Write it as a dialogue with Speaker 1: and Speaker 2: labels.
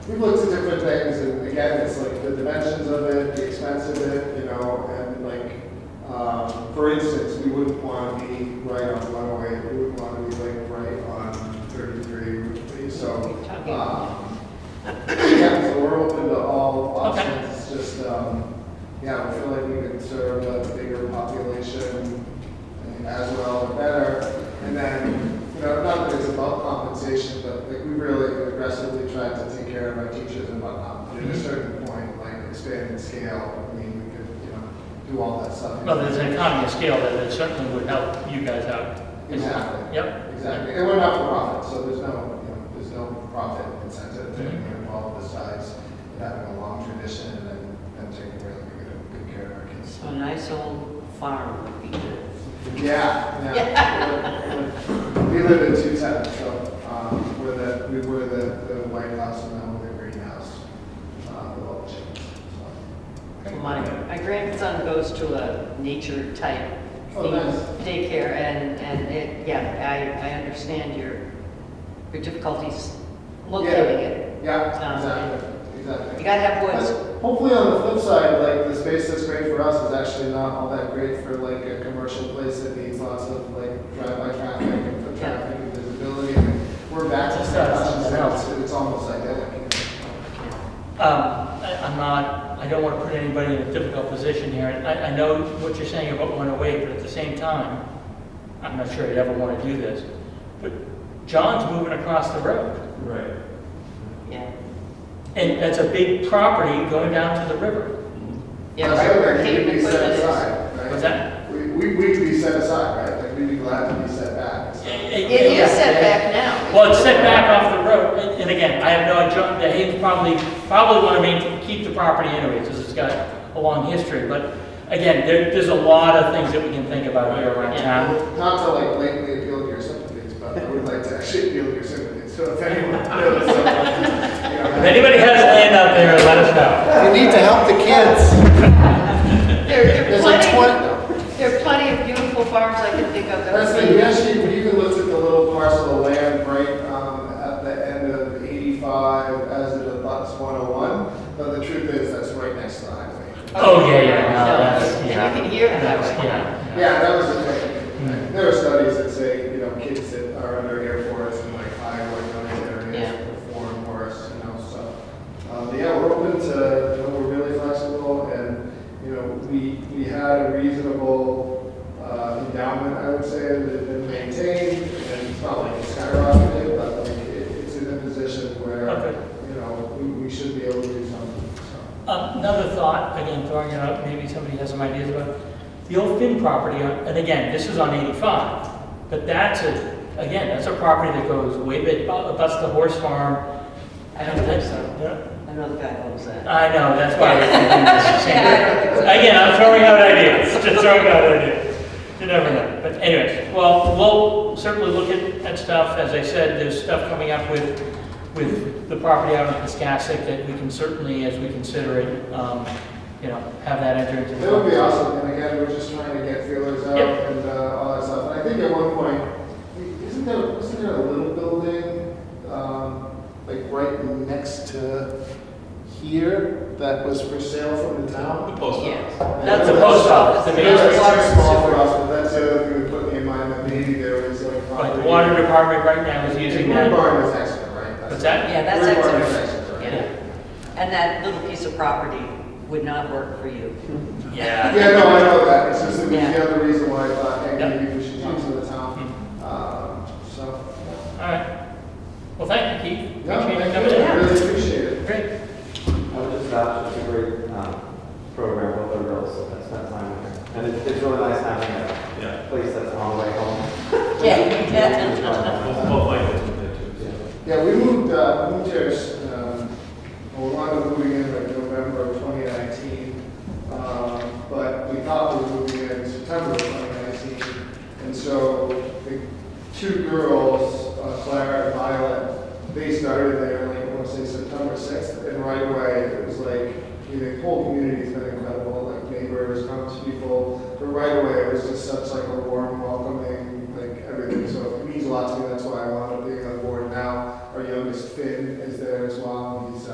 Speaker 1: we've looked at different things, and again, it's like the dimensions of it, the expense of it, you know, and like, um, for instance, we wouldn't want to be right on one oh eight, we wouldn't want to be like right on thirty-three, wouldn't we? so.
Speaker 2: Okay.
Speaker 1: um, Yeah, so we're open to all
Speaker 2: Okay.
Speaker 1: options, it's just, um, yeah, we feel like we can serve a bigger population as well or better. And then, you know, not that it's about compensation, but like we really aggressively tried to take care of our teachers and whatnot. But at a
Speaker 2: Mm-hmm.
Speaker 1: certain point, like expanding scale, I mean, we could, you know, do all that stuff.
Speaker 2: Well, Oh, there's an economy of scale that it certainly would help you guys out. as well.
Speaker 1: Exactly.
Speaker 2: Yep.
Speaker 1: Exactly, and we're not for profit, so there's no, you know, there's no profit incentive to
Speaker 2: Mm-hmm.
Speaker 1: anyone involved besides having a long tradition and then, and taking really good, good care of our kids.
Speaker 3: A nice old farm would be good.
Speaker 1: Yeah, yeah. We live in two towns, so, um, we're the, we were the, the White House and now we're the Greenhouse, uh, the old chickens, so.
Speaker 3: My, my grandson goes to a nature type
Speaker 1: Oh, nice.
Speaker 3: daycare and, and it, yeah, I, I understand your, your difficulties locating it.
Speaker 1: Yeah,
Speaker 3: Sounds
Speaker 1: exactly, exactly.
Speaker 3: You gotta have
Speaker 1: That's-
Speaker 3: woods.
Speaker 1: Hopefully on the flip side, like the space that's great for us is actually not all that great for like a commercial place that needs lots of like drive-by traffic and foot
Speaker 3: Yeah.
Speaker 1: traffic and visibility. And We're back to
Speaker 2: Just
Speaker 1: that,
Speaker 2: add
Speaker 1: it's,
Speaker 2: something else.
Speaker 1: it's- it's almost idyllic.
Speaker 2: Um, I- I'm not, I don't want to put anybody in a difficult position here. And I, I know what you're saying about 108, but at the same time, I'm not sure you'd ever want to do this. But John's moving across the road,
Speaker 4: Right.
Speaker 3: Yeah.
Speaker 2: and that's a big property going down to the river.
Speaker 3: Yeah,
Speaker 1: That's
Speaker 3: right
Speaker 1: something
Speaker 3: where
Speaker 1: that
Speaker 3: Kate
Speaker 1: could be set
Speaker 3: McQueen is.
Speaker 1: aside, right?
Speaker 2: What's that?
Speaker 1: We, we, we could be set aside, right? Like we'd be glad to be set back. so.
Speaker 3: It is set back now.
Speaker 2: Well, it's set back off the road, and- and again, I have no, John, the Haynes probably, probably want to maintain, keep the property anyways, because it's got a long history, but again, there, there's a lot of things that we can think about here around town.
Speaker 1: Not to like blatantly appeal to your sympathies, but I would like to actually appeal to your sympathies. So if anyone knows someone, you know.
Speaker 2: If anybody has land out there, let us know.
Speaker 5: We need to help the kids.
Speaker 3: There, there are
Speaker 5: There's like
Speaker 3: plenty,
Speaker 5: twenty,
Speaker 3: there are plenty of beautiful farms I can think of. that
Speaker 1: That's
Speaker 3: would
Speaker 1: the,
Speaker 3: be-
Speaker 1: you actually, when you even looked at the little parcel of land right, um, at the end of eighty-five as it abuts one oh one, but the truth is, that's right next to the highway.
Speaker 2: Oh, yeah, yeah, no,
Speaker 3: No,
Speaker 2: that's,
Speaker 3: and you
Speaker 2: yeah.
Speaker 3: can hear that
Speaker 2: That's-
Speaker 3: way.
Speaker 2: yeah, yeah.
Speaker 1: Yeah, that was the thing. There are studies that say, you know, kids that are under Air Force and like Iowa, and other
Speaker 3: Yeah.
Speaker 1: areas perform worse, you know, so. Uh, but yeah, we're open to, you know, we're really flexible and, you know, we, we had a reasonable, uh, endowment, I would say, that had been maintained. And it's not like it skyrocketed, but like it, it's in a position where,
Speaker 2: Okay.
Speaker 1: you know, we, we should be able to do something, so.
Speaker 2: Uh, Another thought, again, throwing it out, maybe somebody has some ideas about, the old Finn property, on- and again, this is on 85, but that's a, again, that's a property that goes way bit, that's the horse farm.
Speaker 3: I don't think so.
Speaker 2: Yeah.
Speaker 3: I know the guy who owns that.
Speaker 2: I know, that's why I was thinking this.
Speaker 3: Yeah, I don't think so.
Speaker 2: Again, I'm throwing out ideas, just throwing out ideas. You never know. But anyways, well, we'll certainly look at, at stuff. As I said, there's stuff coming up with, with the property out in Piscassic that we can certainly, as we consider it, um, you know, have that enter into the.
Speaker 1: That would be awesome, and again, we're just trying to get feelers out
Speaker 2: Yep.
Speaker 1: and uh, all that stuff. And I think at one point, isn't there, wasn't there a little building, um, like right next to here that was for sale from the town?
Speaker 4: The post
Speaker 3: Yes.
Speaker 4: office.
Speaker 2: That's the post office, the
Speaker 1: I
Speaker 2: main-
Speaker 1: know It's too small for us, but that's the other thing that put me in mind, that maybe there was like.
Speaker 2: But the water department right now is using
Speaker 1: Brew
Speaker 2: that.
Speaker 1: barn is extra, right? That's-
Speaker 2: What's that?
Speaker 3: Yeah, that's
Speaker 1: Brew barn is
Speaker 3: excellent.
Speaker 1: extra, right?
Speaker 3: Yeah. And that little piece of property would not work for you.
Speaker 2: Yeah.
Speaker 1: Yeah, no, I know that, it's just that was
Speaker 3: Yeah.
Speaker 1: the other reason why I thought, hey,
Speaker 2: Yep. Mm-hmm.
Speaker 1: maybe we should talk to the town, um, so.
Speaker 2: All right. Well, thank you, Keith.
Speaker 1: No,
Speaker 2: Appreciate you
Speaker 1: thank
Speaker 2: coming
Speaker 1: you, I
Speaker 2: in.
Speaker 1: really appreciate it.
Speaker 2: Great.
Speaker 6: I would just vouch it's a great um, program with our girls that spend time with her. And it- it's really nice having
Speaker 4: Yeah.
Speaker 6: a place that's on the way home.
Speaker 4: Both, both like this one there too. so.
Speaker 1: Yeah, we moved, uh, moved here, um, well, we wound up moving in like November of 2019, um, but we thought we were moving in September of 2019. And so the two girls, uh, Clara and Violet, they started there like, I want to say September 6th. And right away, it was like, you know, the whole community's been incredible, like neighbors, homeless people. But right away, it was just such like a warm uh,